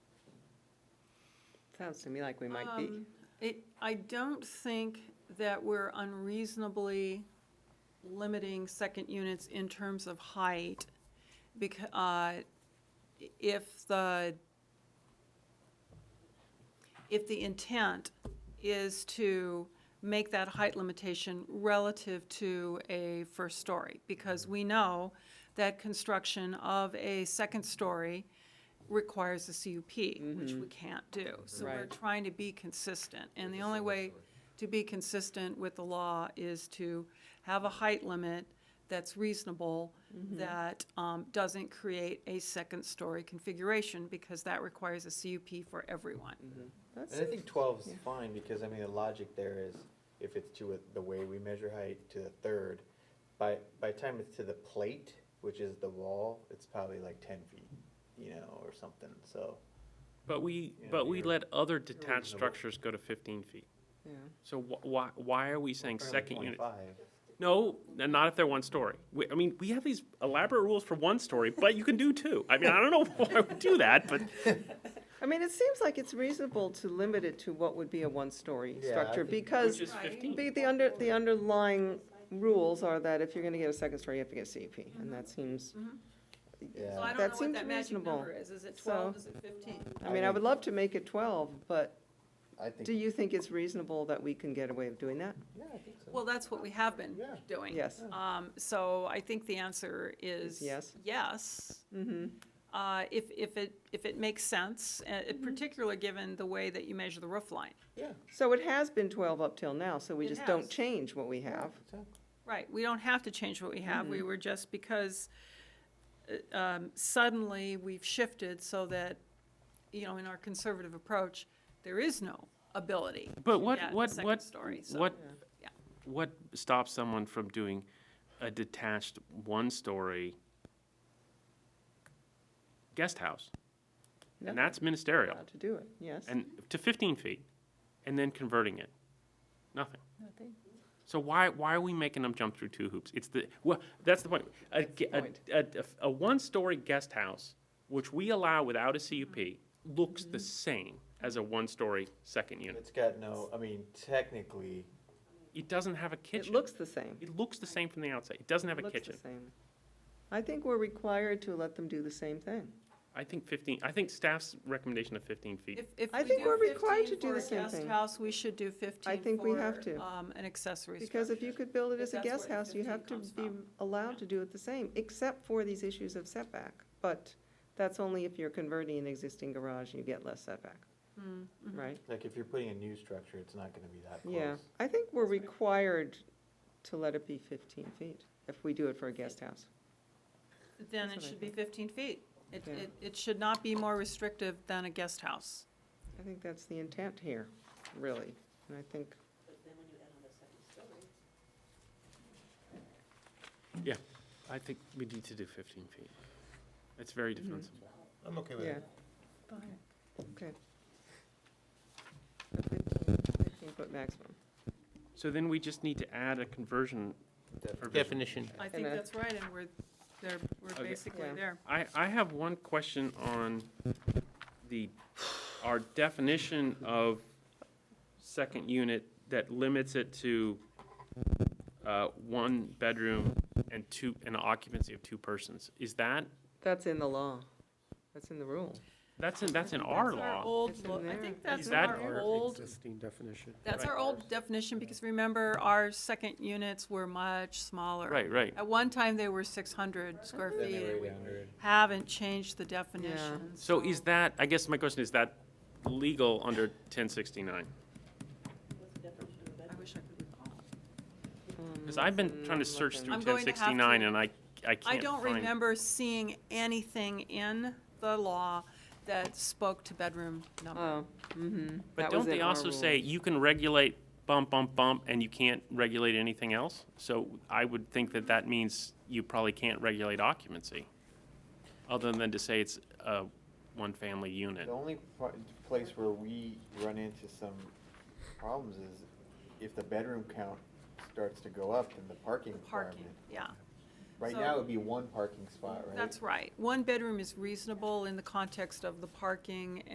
Sounds to me like we might be. Um, It, I don't think that we're unreasonably limiting second units in terms of height. Because, uh, if the, if the intent is to make that height limitation relative to a first story, because we know that construction of a second story requires a CUP, Mm-hmm. which we can't do. So we're Right. trying to be consistent, and the only way to be consistent with the law is to have a height limit that's reasonable, that um, doesn't create a second-story configuration, because that requires a CUP for everyone. That's And I it. think twelve's fine, because I mean, the logic there is, if it's to a- the way we measure height to the third, by, by the time it's to the plate, which is the wall, it's probably like ten feet, you know, or something, so. But we, Yeah, but we you're- let other detached reasonable. structures go to fifteen feet. Yeah. So wh- why, why are we saying Apparently second unit? 25. No, n- not if they're one story. We, I mean, we have these elaborate rules for one story, but you can do two. I mean, I don't know why we do that, but I mean, it seems like it's reasonable to limit it to what would be a one-story Yeah, I structure, think- because which is fifteen. the, the under, the underlying rules are that if you're gonna get a second story, you have to get CUP, and that seems, Yeah. So I That don't know what seems that magic reasonable. number is, is it So- twelve, is it fifteen? I mean, I would love to make it twelve, but I do think, you think it's reasonable that we can get away with doing that? yeah, I think so. Well, that's what we have been Yeah. doing. Yes. Um, so I think the answer is. Yes. Yes. Mm-hmm, Uh, if, if it, if it makes sense, uh, Mm-hmm. particularly given the way that you measure the roof line. Yeah. so it has been twelve up till now, so we It just don't has. change what we have. exactly. Right, we don't have to change what we have, Mm-hmm. we were just because uh, um, suddenly we've shifted so that, you know, in our conservative approach, there is no ability. But to what, get a what, second what, story, so- what, Yeah. what stops someone from doing a detached one-story guest house? And Nothing. that's ministerial, Allowed to do it, yes. and to fifteen feet, and then converting it, nothing. So why, why are we making them jump through two hoops? It's the, well, that's the point. A, ge- the a, point. a, a- a one-story guest house, which we allow without a CUP, looks Mm-hmm. the same as a one-story second unit. It's got no, I mean, technically, It doesn't have a It kitchen. looks the same. It looks the same from the outside. It doesn't have a Looks the kitchen. same. I think we're required to let them do the same thing. I think fifteen, I think staff's recommendation of fifteen feet. If, if I we think do we're required 15 to do for the a same guest thing. house, we should do fifteen think we have for, to. um, an accessory Because if you structure. could build it If as a that's guest where the house, you 15 have to comes be from. allowed to do it the same, except for these issues of setback. But that's only if you're converting an existing garage, you get less setback, Mm-hmm. right? like, if you're putting a new structure, it's not gonna be that close. Yeah, I think we're required to let it be fifteen feet if we do it for a guest house. Then That's it what I should be fifteen feet. It, Yeah. it, it should not be more restrictive than a guest house. I think that's the intent here, really, and I think. I think we need to do fifteen feet. It's very Mm-hmm. defensible. I'm okay Yeah, okay. A 15 Fifteen-foot maximum. So then we just need to add a conversion provision. I think And I- that's right, and we're, there, we're Okay. basically Yeah. there. I, I have one question on the, our definition of second unit that limits it to uh, one bedroom and two, and occupancy of two persons. Is that, That's in the law. That's in the rule. that's in, that's in our That's our law? old It's in law. I there. think Is that's that our old, Existing definition. that's our old definition, because remember, our second units were much smaller. Right, right. At one time, they were six hundred square Then feet, they and were we 800. haven't changed the definition. So is that, I guess my question, is that legal under 1069? I wish I could recall. Mm-hmm. Because I've been trying to search Mm, through Mm, I'm going to have 1069 to- and I, I can't I find. don't remember seeing anything in the law that spoke to bedroom number. Oh, mm-hmm. But don't they also say you can regulate bump, bump, bump, and you can't regulate anything else? So I would think that that means you probably can't regulate occupancy, other than to say it's a one-family unit. The only pro- place where we run into some problems is if the bedroom count starts to go up, then the parking Parking, requirement. yeah, Right So- now, it would be one parking spot, right? that's right. One bedroom is reasonable in the context of the parking